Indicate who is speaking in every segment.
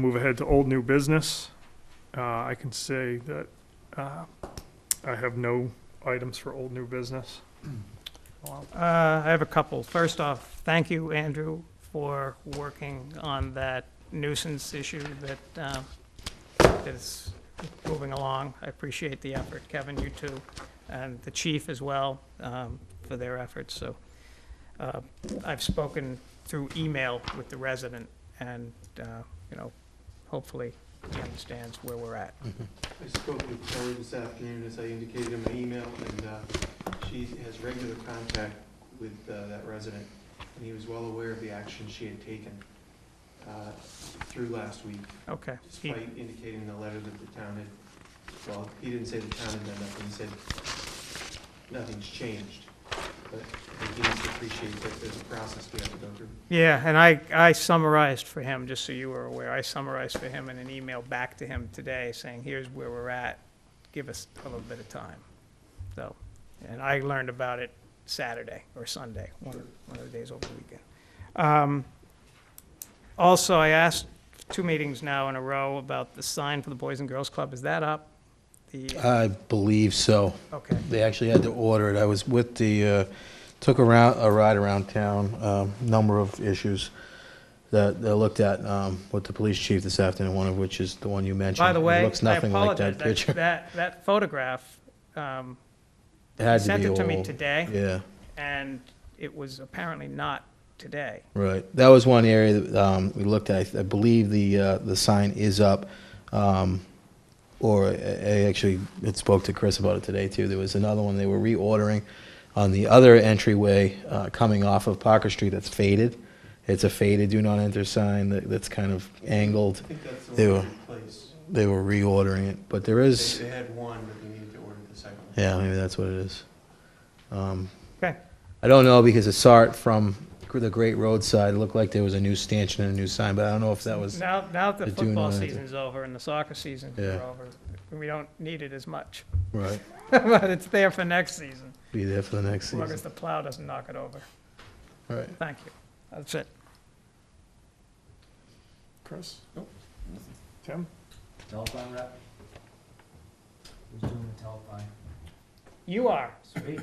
Speaker 1: Move ahead to old new business. Uh, I can say that, uh, I have no items for old new business.
Speaker 2: Uh, I have a couple. First off, thank you, Andrew, for working on that nuisance issue that um, that is moving along. I appreciate the effort, Kevin, you too, and the chief as well um, for their efforts, so. uh, I've spoken through email with the resident, and, uh, you know, hopefully he understands where we're at.
Speaker 3: I spoke with Terry this afternoon, as I indicated in my email, and uh, she has regular contact with uh, that resident, and he was well aware of the action she had taken uh, through last week,
Speaker 2: Okay. He-
Speaker 3: despite indicating the letter that the town had, well, he didn't say the town had done nothing, he said nothing's changed, but I think he needs to appreciate that there's a process we have to go through.
Speaker 2: Yeah, and I, I summarized for him, just so you were aware, I summarized for him in an email back to him today saying, here's where we're at, give us a little bit of time. So, and I learned about it Saturday or Sunday, one of, one of the days over the weekend. Um, Also, I asked two meetings now in a row about the sign for the Boys and Girls Club, is that up? The,
Speaker 4: I believe so.
Speaker 2: okay,
Speaker 4: They actually had to order it. I was with the, uh, took around, a ride around town, um, number of issues that that I looked at um, with the police chief this afternoon, one of which is the one you mentioned.
Speaker 2: by the way,
Speaker 4: It looks
Speaker 2: I
Speaker 4: nothing like
Speaker 2: apologize,
Speaker 4: that
Speaker 2: that,
Speaker 4: picture.
Speaker 2: that, that photograph, um,
Speaker 4: It had to
Speaker 2: sent
Speaker 4: be
Speaker 2: it to me
Speaker 4: old.
Speaker 2: today.
Speaker 4: Yeah,
Speaker 2: and it was apparently not today.
Speaker 4: right. That was one area that um, we looked at. I believe the, uh, the sign is up. um, Or I I actually had spoke to Chris about it today, too. There was another one they were reordering on the other entryway uh, coming off of Parker Street that's faded. It's a faded do not enter sign that- that's kind of angled.
Speaker 3: I think that's
Speaker 4: They
Speaker 3: the
Speaker 4: were-
Speaker 3: one we replaced.
Speaker 4: They were reordering it, but there is,
Speaker 3: They they had one, but they needed to order the second one.
Speaker 4: yeah, maybe that's what it is. Um,
Speaker 2: Okay.
Speaker 4: I don't know because I saw it from the Great Roadside. It looked like there was a new stanchion and a new sign, but I don't know if that was,
Speaker 2: Now, now that the
Speaker 4: I do
Speaker 2: football
Speaker 4: know that.
Speaker 2: season's over and the soccer season's
Speaker 4: Yeah.
Speaker 2: over, we don't need it as much.
Speaker 4: right,
Speaker 2: But it's there for next season,
Speaker 4: be there for the next
Speaker 2: as long
Speaker 4: season.
Speaker 2: as the plow doesn't knock it over.
Speaker 4: Right.
Speaker 2: Thank you. That's it.
Speaker 1: Chris? Nope. Tim?
Speaker 5: Telephone rep? Who's doing the telephone?
Speaker 2: You are.
Speaker 5: Sweet,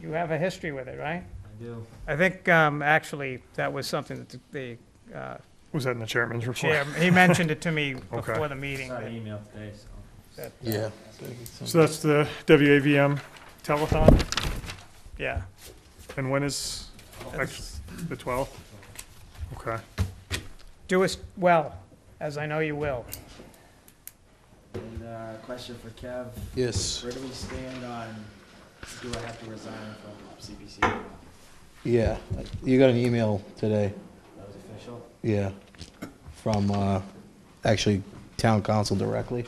Speaker 2: You have a history with it, right?
Speaker 5: I do.
Speaker 2: I think, um, actually, that was something that the, the, uh,
Speaker 1: Was that in the chairman's
Speaker 2: chair,
Speaker 1: report?
Speaker 2: he mentioned it to me
Speaker 1: Okay.
Speaker 2: before the meeting.
Speaker 5: Saw
Speaker 2: that-
Speaker 5: an email today, so.
Speaker 2: that, uh,
Speaker 4: Yeah.
Speaker 1: So that's the WAVM telethon,
Speaker 2: Yeah.
Speaker 1: and when is, next- the 12th? Okay.
Speaker 2: Do us well, as I know you will.
Speaker 5: And, uh, question for Kev,
Speaker 4: Yes.
Speaker 5: where do we stand on, do I have to resign from CPC? or not?
Speaker 4: Yeah, you got an email today,
Speaker 5: That was official?
Speaker 4: yeah, from, uh, actually, town council directly.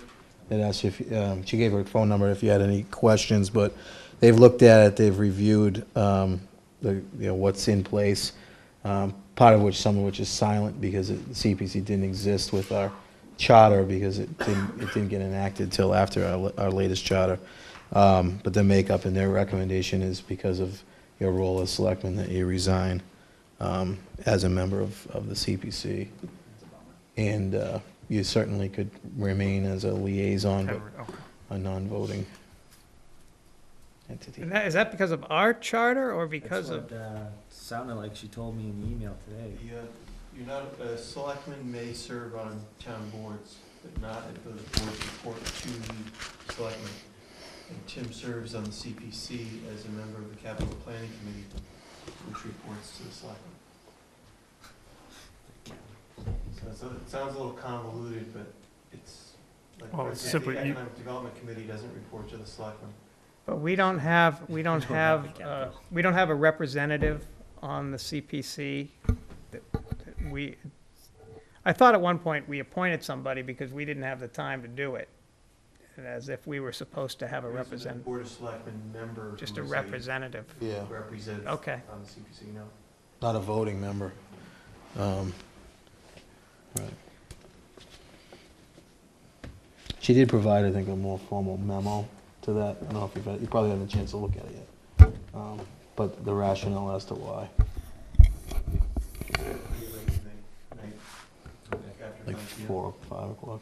Speaker 4: It asked if, um, she gave her phone number if you had any questions, but they've looked at it, they've reviewed, um, the, you know, what's in place. Um, part of which, some of which is silent because it- CPC didn't exist with our charter because it didn't, it didn't get enacted till after our, la- our latest charter. Um, but the makeup and their recommendation is because of your role as selectman that you resign, um, as a member of, of the CPC. And, uh, you certainly could remain as a liaison, but
Speaker 1: Henry, okay.
Speaker 4: a non-voting entity.
Speaker 2: And that, is that because of our charter or because of?
Speaker 5: That's what, uh, sounded like she told me in the email today.
Speaker 3: The, uh, You're not, a selectman may serve on town boards, but not if the board report to the selectman. And Tim serves on the CPC as a member of the capital planning committee, which reports to the selectman. So it's a- it sounds a little convoluted, but it's like,
Speaker 1: Well,
Speaker 3: for
Speaker 1: it's
Speaker 3: example,
Speaker 1: simply
Speaker 3: the
Speaker 1: you-
Speaker 3: economic development committee doesn't report to the selectman.
Speaker 2: But we don't have, we don't
Speaker 5: don't have
Speaker 2: have,
Speaker 5: the
Speaker 2: uh,
Speaker 5: capital.
Speaker 2: we don't have a representative on the CPC. that- that We, I thought at one point we appointed somebody because we didn't have the time to do it. and As if we were supposed to have a
Speaker 3: There isn't
Speaker 2: represent,
Speaker 3: Board of selectmen member.
Speaker 2: just a
Speaker 3: who is
Speaker 2: representative.
Speaker 4: Yeah.
Speaker 3: Represents on
Speaker 2: Okay,
Speaker 3: the CPC, no.
Speaker 4: Not a voting member. Um, right. She did provide, I think, a more formal memo to that. I don't know if you've had, you probably haven't had a chance to look at it yet. Um, But the rationale as to why,
Speaker 3: Pretty late tonight, night,
Speaker 5: Okay.
Speaker 3: after
Speaker 4: like
Speaker 3: lunch, you
Speaker 4: four, or five o'clock.